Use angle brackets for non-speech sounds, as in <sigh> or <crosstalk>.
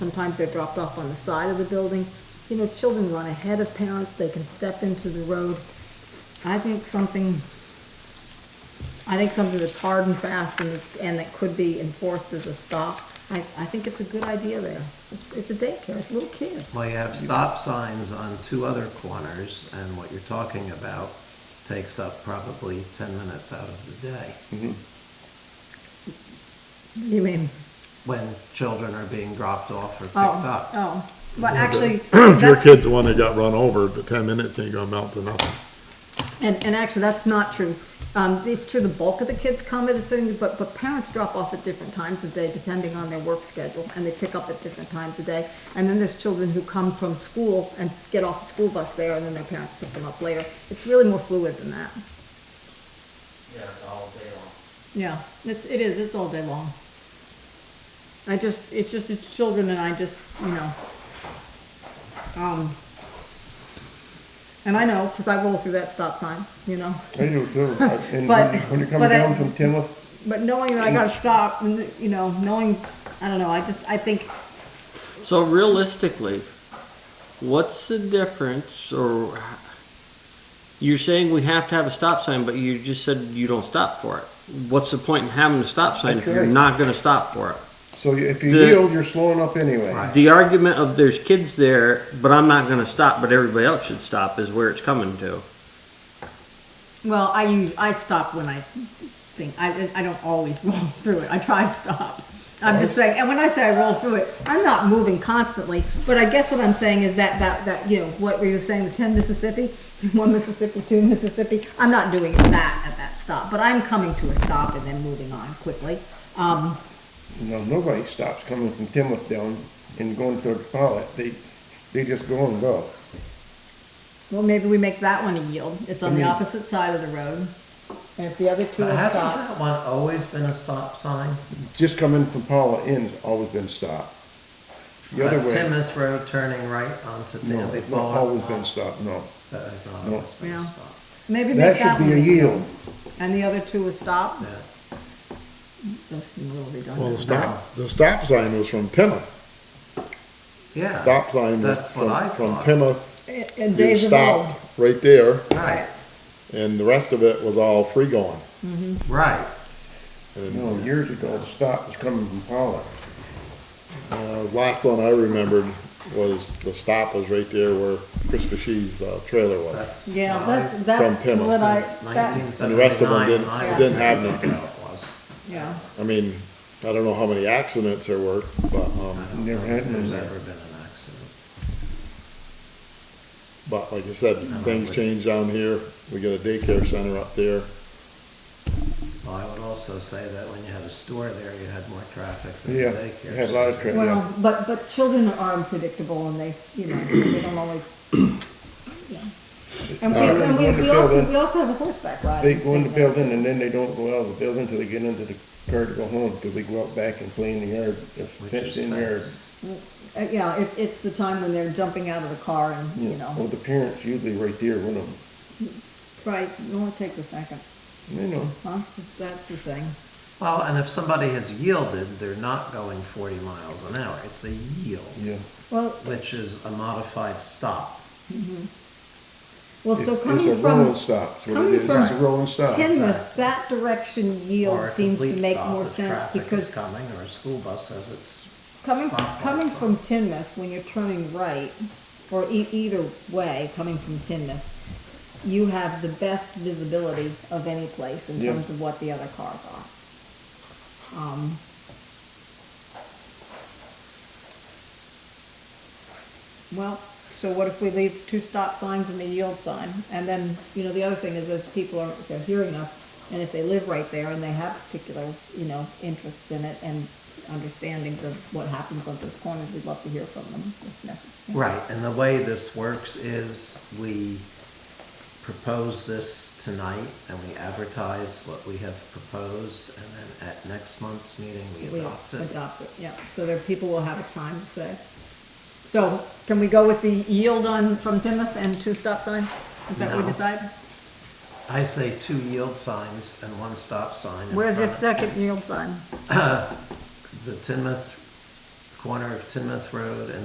Sometimes they're dropped off on the side of the building. You know, children run ahead of parents, they can step into the road. I think something, I think something that's hard and fast and, is- and that could be enforced as a stop, I, I think it's a good idea there. It's, it's a daycare, it's little kids. Well, you have stop signs on two other corners, and what you're talking about takes up probably 10 minutes out of the day You mean, when children are being dropped off or picked oh, up. oh, but actually. If your that's- kid's the one that got run over, the ten minutes ain't gonna amount to nothing. And, and actually, that's not true. Um, it's true, the bulk of the kids come at a certain, but, but parents drop off at different times of day depending on their work schedule, and they pick up at different times of day. And then there's children who come from school and get off the school bus there, and then their parents pick them up later. It's really more fluid than that. Yeah, all day long. Yeah, it's, it is, it's all day long. I just, it's just, it's children and I just, you know, um, and I know, cause I roll through that stop sign, you know? I do <laughs> too, I- But- and when you- when you're but coming I- down from Tinworth, But knowing that I gotta stop, and, you know, knowing, I don't know, I just, I think, So realistically, what's the difference or you're saying we have to have a stop sign, but you just said you don't stop for it. What's the point in having a stop sign if That's you're right. not gonna stop for it? so you- if you The- yield, you're slowing up anyway. Right. The argument of there's kids there, but I'm not gonna stop, but everybody else should stop is where it's coming to. well, I use, I stop when I think, I, I don't always <laughs> roll through it, I try to stop. I'm just saying, and when I say I roll through it, I'm not moving constantly, but I guess what I'm saying is that, that, that, you know, what were you saying, the ten Mississippi? <laughs> One Mississippi, two Mississippi, I'm not doing that at that stop, but I'm coming to a stop and then moving on quickly. Um, No, nobody stops coming from Tinworth down and going to Pollock, they, they just go and go. well, maybe we make that one a yield, it's on the opposite side of the road. And if the other two But are hasn't stops. that one always been a stop sign? Just coming from Pollock in's always been stopped. The other But way, Timoth Road turning right onto no, Danby it's not Boulevard? always been stopped, no. That has not No. always been a Yeah. stop. Maybe make That that should be a one. yield, And the other two was stop? Yeah. That's a little Well, the redundant. stop, the stop sign was from Plymouth. Yeah. Stop sign was That's what I from, from thought. Plymouth. And You days of old. stopped right there, Right, and the rest of it was all free going. right. And, no, years ago, the stop was coming from Pollock. uh, last one I remembered was, the stop was right there where Chris Shee's, uh, trailer was. That's Yeah, what I- that's, that's Plymouth what I, Since that's, And the rest of them 1979, didn't- I didn't have think them. that's how it was. yeah. I mean, I don't know how many accidents there were, but, um, I don't Never know if had There's none. ever been an accident. But like I said, Mhm. things change down here. We got a daycare center up there. Well, I would also say that when you had a store there, you had more traffic than the Yeah, daycare. it had a lot of center. traffic. Well, but, but children are unpredictable and they, you know, they don't always, yeah. And we, Uh, and we, we wonderful, also, then. we also have a horseback ride. They go in the building and then they don't go out of the building till they get into the car to go home, because they go out back and play in the yard, if Which is fenced in yard. fast. Uh, Yeah, it's, it's the time when they're jumping out of the car and, you Well, know, the parents usually right there with them, right, you want to take the second, you know, that's, the- that's the thing. Well, and if somebody has yielded, they're not going 40 miles an hour. It's a yield, yeah. Well, which is a modified stop. well, It's so it's coming a from. rolling stop, it's what coming it is, it's from a rolling stop. Tinmouth, that direction yield Or a seems to complete make stop more if sense Traffic is because coming or a school bus says it's, coming, stop coming lights from on. Tinmouth, when you're turning right, or e- either way, coming from Tinmouth, you have the best visibility of any place in Yeah. terms of what the other cars are. Um, Well, so what if we leave two stop signs and a yield sign? And then, you know, the other thing is those people are, they're hearing us, and if they live right there and they have particular, you know, interests in it and understandings of what happens on those corners, we'd love to hear from them if necessary. right. And the way this works is we propose this tonight and we advertise what we have proposed. And then at next month's meeting, we We adopt it. adopt it, yeah, so there, people will have a time to say. So, can we go with the yield on, from Timoth and two stop signs? Is that what we No. decide? I say two yield signs and one stop sign. in Where's your front second yield sign? of The Tinmouth corner of Tinmouth Road and